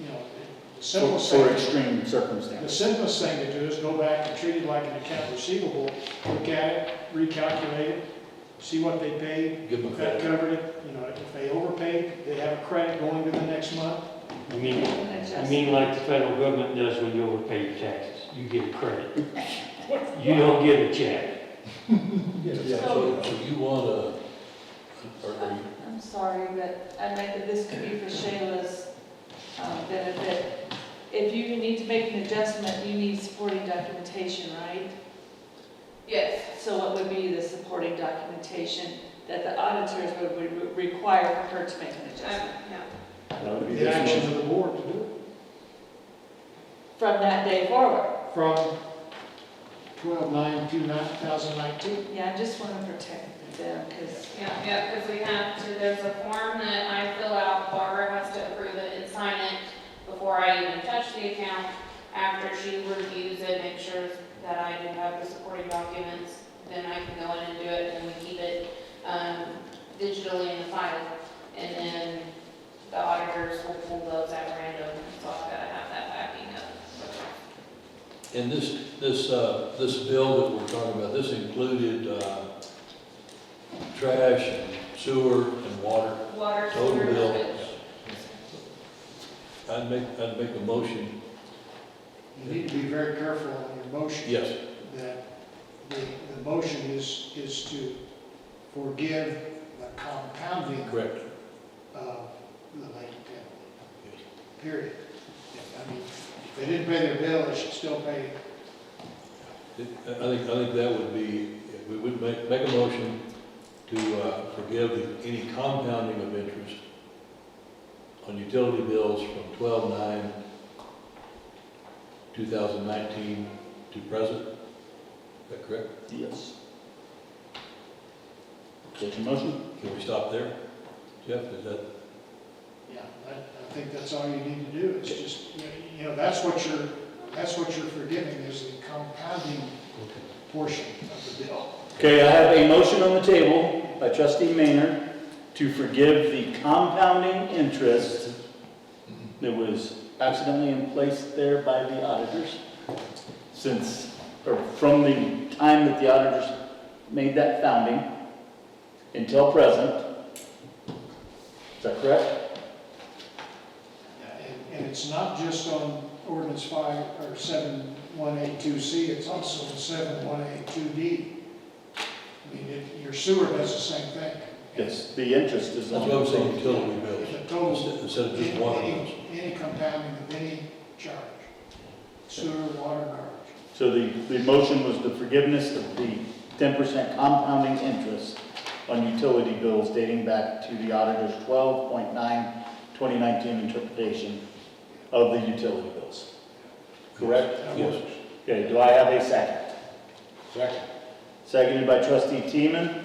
you know, the for simplest for thing, to- extreme the circumstances. simplest thing to do is go back and treat it like an account receivable, look at it, recalculate it, see what they paid, Give them a if that credit. covered it, you know, if they overpaid, they have a credit going to the next month. You mean, you mean like the federal government does when you overpay your taxes, you get a credit. You don't get a check. So so you want a, or are you, I'm sorry, but I meant that this could be for Shayla's um, benefit. If you need to make an adjustment, you need supporting documentation, right? Yes, So what would be the supporting documentation that the auditors would- would re- require for her to make an um, adjustment? yeah, That would be The this action motion. of the board to do From that day forward? it from twelve nine to nine thousand nineteen. Yeah, I just want to protect them because, yeah, yeah, because we have to, there's a form that I fill out, Barbara has to approve it and sign it before I even touch the account. After she reviews it, make sure that I do have the supporting documents, then I can go in and do it, and we keep it um, digitally in the file. And then the auditors will pull those at random, so I've got to have that backing up. and this, this, uh, this bill that we're talking about, this included uh, trash and sewer and water? Water, Total sewer, bill. which I'd make, I'd make a motion, You need to be very careful on your motion. yes, that the, the motion is, is to forgive the compounding correct. of the late penalty. Uh, Period. I mean, if they didn't pay their bill, they should still pay it. I think, I think that would be, we would make, make a motion to uh, forgive the- any compounding of interest on utility bills from twelve nine, two thousand nineteen to present. Is that correct? Yes. Such a motion? Can we stop there? Jeff, is that, Yeah, I, I think that's all you need to do, is just, you know, you know, that's what you're, that's what you're forgiving, is the compounding portion of the bill. Okay, I have a motion on the table by trustee Maynard to forgive the compounding interest that was accidentally in place there by the auditors since, or from the time that the auditors made that founding until present. Is that correct? And, and it's not just on ordinance five, or seven, one eight two C, it's also in seven, one eight two D. I mean, it- your sewer does the same thing. Yes, the interest is that's on. what I'm saying, utility It's a bills, total, instead of just any, water bills. any compounding of any charge, sewer, water, garbage. So the, the motion was the forgiveness of the ten percent compounding interest on utility bills dating back to the auditor's twelve point nine, twenty nineteen interpretation of the utility bills. Correct? Yes. Okay, do I have a second? Second. Seconded by trustee Teeman.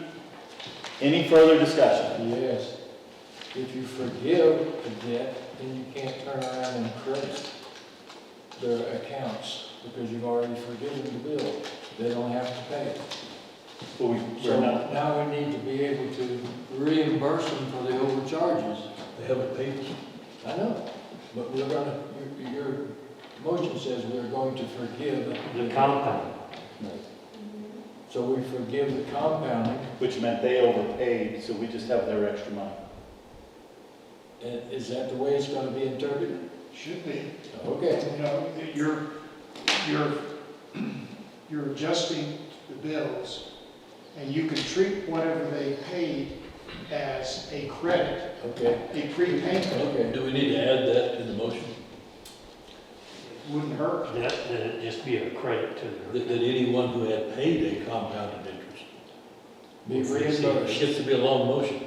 Any further discussion? Yes. If you forgive the debt, then you can't turn around and credit their accounts because you've already forgiven the bill. They don't have to pay. it. Well, we- So We're not, now we need to be able to reimburse them for the overcharges. They haven't paid us. I know, but we're gonna, your, your motion says we're going to forgive. The compound, So we forgive the compounding. which meant they overpaid, so we just have their extra money. And is that the way it's gonna be interpreted? Should be, Okay. you know, that you're, you're, you're adjusting the bills, and you can treat whatever they paid as a credit, Okay, a prepayment, okay. Do we need to add that to the motion? wouldn't hurt. that, that'd just be a credit to the. That, that anyone who had paid a compounded interest Be It reimbursed. gets to be a long motion,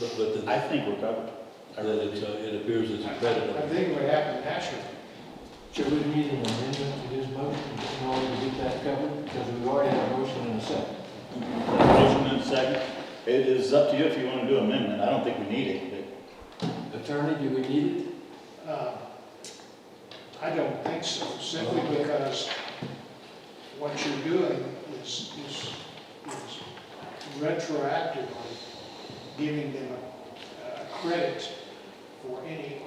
but, but I that, think we're covered. that it, uh, it appears as a I credit. think it would happen naturally. Should we need an amendment to this motion in order to get that covered? Because we already have a motion and a second. Motion and second. It is up to you if you want to do amendment. I don't think we need it, but Attorney, do we need it? Uh, I don't think so, simply because what you're doing is, is is retroactively giving them a uh, credit for any